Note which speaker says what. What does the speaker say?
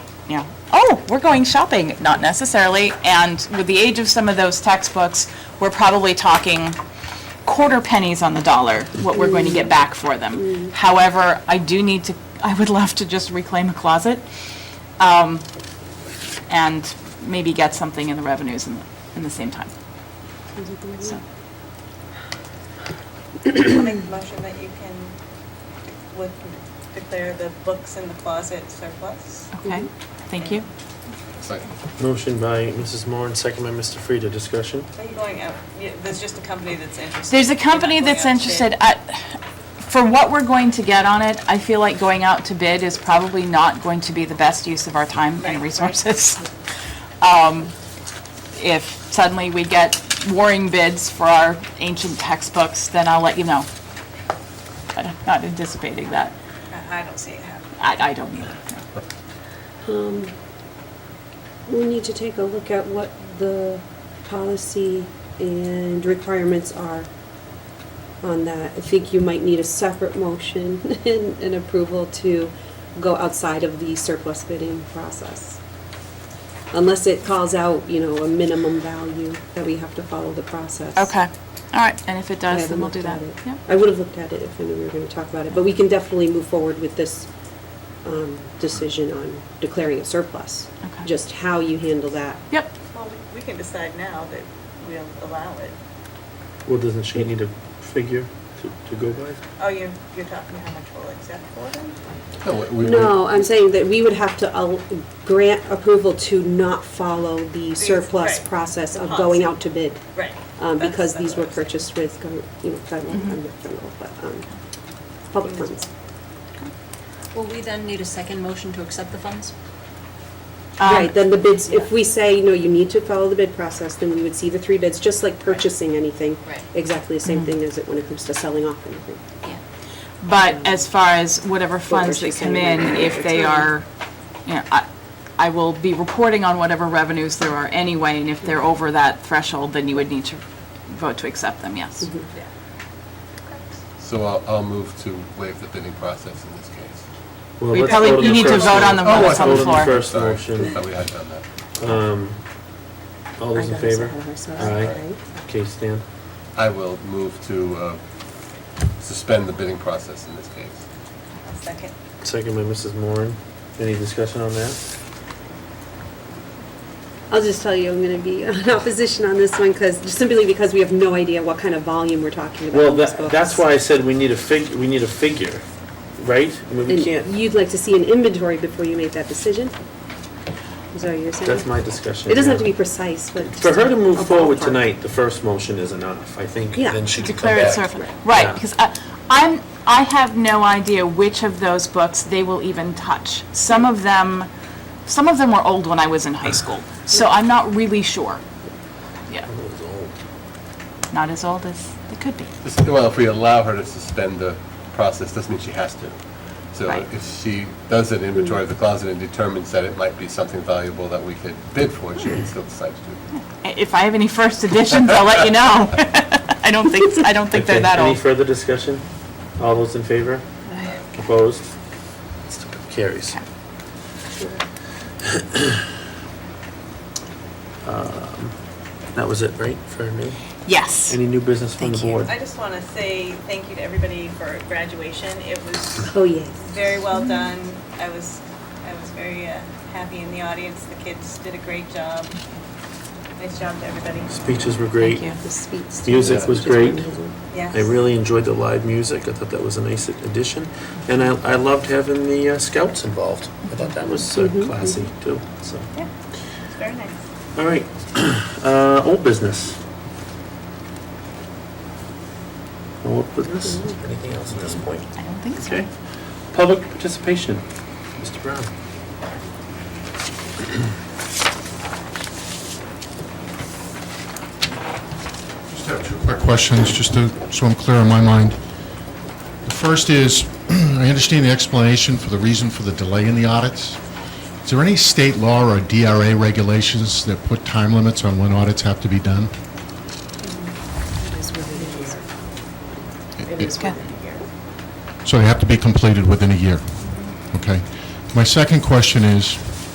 Speaker 1: you know, oh, we're going shopping, not necessarily. And with the age of some of those textbooks, we're probably talking quarter pennies on the dollar, what we're going to get back for them. However, I do need to, I would love to just reclaim a closet um, and maybe get something in the revenues in, the- in the same time. So,
Speaker 2: I'll make a motion that you can would declare the books in the closet surplus.
Speaker 1: okay, thank you.
Speaker 3: Second.
Speaker 4: Motion by Mrs. Moore and second by Mr. Frieda. Discussion?
Speaker 2: Are you going out, yeah, there's just a company that's interested.
Speaker 1: There's a
Speaker 2: You're not
Speaker 1: company
Speaker 2: going
Speaker 1: that's
Speaker 2: out to bid.
Speaker 1: interested, I- for what we're going to get on it, I feel like going out to bid is probably not going to be the best use of our time
Speaker 2: Right,
Speaker 1: and
Speaker 2: right.
Speaker 1: resources. Um, If suddenly we get warring bids for our ancient textbooks, then I'll let you know. But I'm not anticipating that.
Speaker 2: I I don't see it happening.
Speaker 1: I, I don't either. no.
Speaker 5: Um, We need to take a look at what the policy and requirements are on that. I think you might need a separate motion and, and approval to go outside of the surplus bidding process. Unless it calls out, you know, a minimum value that we have to follow the process.
Speaker 1: Okay, all right, and if it
Speaker 5: I
Speaker 1: does, then
Speaker 5: haven't
Speaker 1: we'll do
Speaker 5: looked
Speaker 1: that.
Speaker 5: at it.
Speaker 1: Yeah.
Speaker 5: I would have looked at it if I knew we were going to talk about it, but we can definitely move forward with this um, decision on declaring a surplus.
Speaker 1: Okay.
Speaker 5: Just how you handle that.
Speaker 1: Yep,
Speaker 2: Well, we- we can decide now that we'll allow it.
Speaker 4: Well, doesn't she need a figure to, to go by?
Speaker 2: Oh, you're, you're talking how much we'll accept for them?
Speaker 3: No, we- we-
Speaker 5: No, I'm saying that we would have to al- grant approval to not follow the surplus
Speaker 2: right.
Speaker 5: process
Speaker 2: The
Speaker 5: of
Speaker 2: policy.
Speaker 5: going out to bid.
Speaker 2: Right.
Speaker 5: um,
Speaker 2: That's-
Speaker 5: Because
Speaker 2: that's
Speaker 5: these were
Speaker 2: what I was-
Speaker 5: purchased with, gov- you know, federal, I'm not federal, but um, public funds.
Speaker 6: Will we then need a second motion to accept the funds?
Speaker 1: Um,
Speaker 5: Right, then the bids, if we say, no, you need to follow the bid process, then we would see the three bids, just like purchasing anything.
Speaker 6: Right.
Speaker 5: Exactly the same thing as it when it comes to selling off anything.
Speaker 6: Yeah.
Speaker 1: But as far as whatever funds that
Speaker 5: she's
Speaker 1: come in,
Speaker 5: saying.
Speaker 1: if they are, you know, I, I will be reporting on whatever revenues there are anyway, and if they're over that threshold, then you would need to vote to accept them, yes.
Speaker 2: Yeah.
Speaker 3: So I'll, I'll move to waive the bidding process in this case.
Speaker 4: Well,
Speaker 1: We
Speaker 4: let's
Speaker 1: probably-
Speaker 4: vote on
Speaker 1: you
Speaker 4: the
Speaker 1: need to
Speaker 4: first
Speaker 1: vote
Speaker 4: one.
Speaker 1: on the
Speaker 3: one that's on the
Speaker 4: Vote
Speaker 1: floor.
Speaker 4: first
Speaker 3: Sorry,
Speaker 4: motion.
Speaker 3: Thought we had done that.
Speaker 4: Um, all those in
Speaker 5: I got us
Speaker 4: favor?
Speaker 5: ahead of ourselves,
Speaker 4: Aye.
Speaker 5: right?
Speaker 4: Okay, Stan.
Speaker 3: I will move to uh, suspend the bidding process in this case.
Speaker 2: I'll Second.
Speaker 4: Second by Mrs. Moore. Any discussion on that?
Speaker 5: I'll just tell you, I'm going to be in opposition on this one because, simply because we have no idea what kind of volume we're talking about.
Speaker 4: Well,
Speaker 5: on these
Speaker 4: that,
Speaker 5: books.
Speaker 4: that's why I said we need a fig, we need a figure, right? I mean, we
Speaker 5: And
Speaker 4: can't,
Speaker 5: You'd like to see an inventory before you make that decision? Is that what you're saying?
Speaker 4: that's my discussion.
Speaker 5: It doesn't have to
Speaker 4: yeah.
Speaker 5: be precise, but.
Speaker 4: For her to
Speaker 5: a
Speaker 4: move forward
Speaker 5: ballpark.
Speaker 4: tonight, the first motion is enough, I think.
Speaker 5: Yeah.
Speaker 4: Then she can come
Speaker 1: Declare it
Speaker 4: back.
Speaker 1: surplus, right,
Speaker 4: Yeah.
Speaker 1: because I, I'm, I have no idea which of those books they will even touch. Some of them, some of them were old when I was in high school, so I'm not really sure. Yeah,
Speaker 4: That was old.
Speaker 1: not as old as they could be.
Speaker 3: Just- Well, if we allow her to suspend the process, doesn't mean she has to. So
Speaker 1: Right.
Speaker 3: if she does an inventory of the closet and determines that it might be something valuable that we could bid for, she can still decide to do it.
Speaker 1: If I have any first editions, I'll let you know. I don't think, I don't think they're
Speaker 4: Okay,
Speaker 1: that
Speaker 4: Any
Speaker 1: old.
Speaker 4: further discussion? All those in favor? Opposed? Carries. Um, That was it, right, for me?
Speaker 1: Yes.
Speaker 4: Any new business from the
Speaker 6: Thank you.
Speaker 4: board?
Speaker 2: I just want to say thank you to everybody for graduation. It was
Speaker 5: Oh, yes.
Speaker 2: very well done. I was, I was very uh, happy in the audience. The kids did a great job. Nice job to everybody.
Speaker 4: Speeches were great.
Speaker 1: Thank
Speaker 5: The sweets.
Speaker 4: Music
Speaker 3: Yeah.
Speaker 4: was great.
Speaker 2: Yes.
Speaker 4: I really enjoyed the live music. I thought that was a nice addition. And I, I loved having the uh, scouts involved. I thought that was uh,
Speaker 1: Mm-hmm.
Speaker 4: classy too, so.
Speaker 2: Yeah, it's very nice.
Speaker 4: All right, uh, old business. No Old business? Anything else at this point?
Speaker 1: I don't think so.
Speaker 4: Okay. Public participation, Mr. Brown.
Speaker 7: Just have two quick questions, just to, so I'm clear in my mind. The first is, I understand the explanation for the reason for the delay in the audits. Is there any state law or DRA regulations that put time limits on when audits have to be done? It is
Speaker 1: Okay.
Speaker 7: So they have to be completed within a year, okay? My second question is,